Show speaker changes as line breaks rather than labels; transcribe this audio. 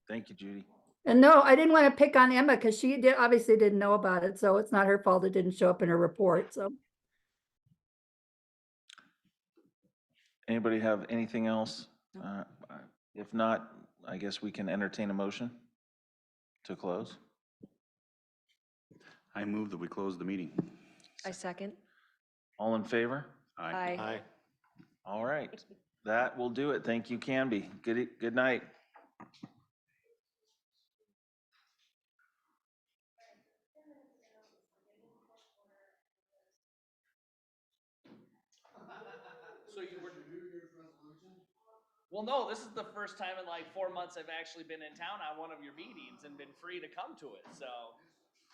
Thank you, Judy.
And no, I didn't want to pick on Emma because she did, obviously didn't know about it, so it's not her fault it didn't show up in her report, so.
Anybody have anything else? Uh, I- If not, I guess we can entertain a motion to close.
I move that we close the meeting.
I second.
All in favor?
Aye.
Aye.
All right, that will do it. Thank you, Canby. Good, e- good night.
Well, no, this is the first time in like four months I've actually been in town on one of your meetings and been free to come to it, so.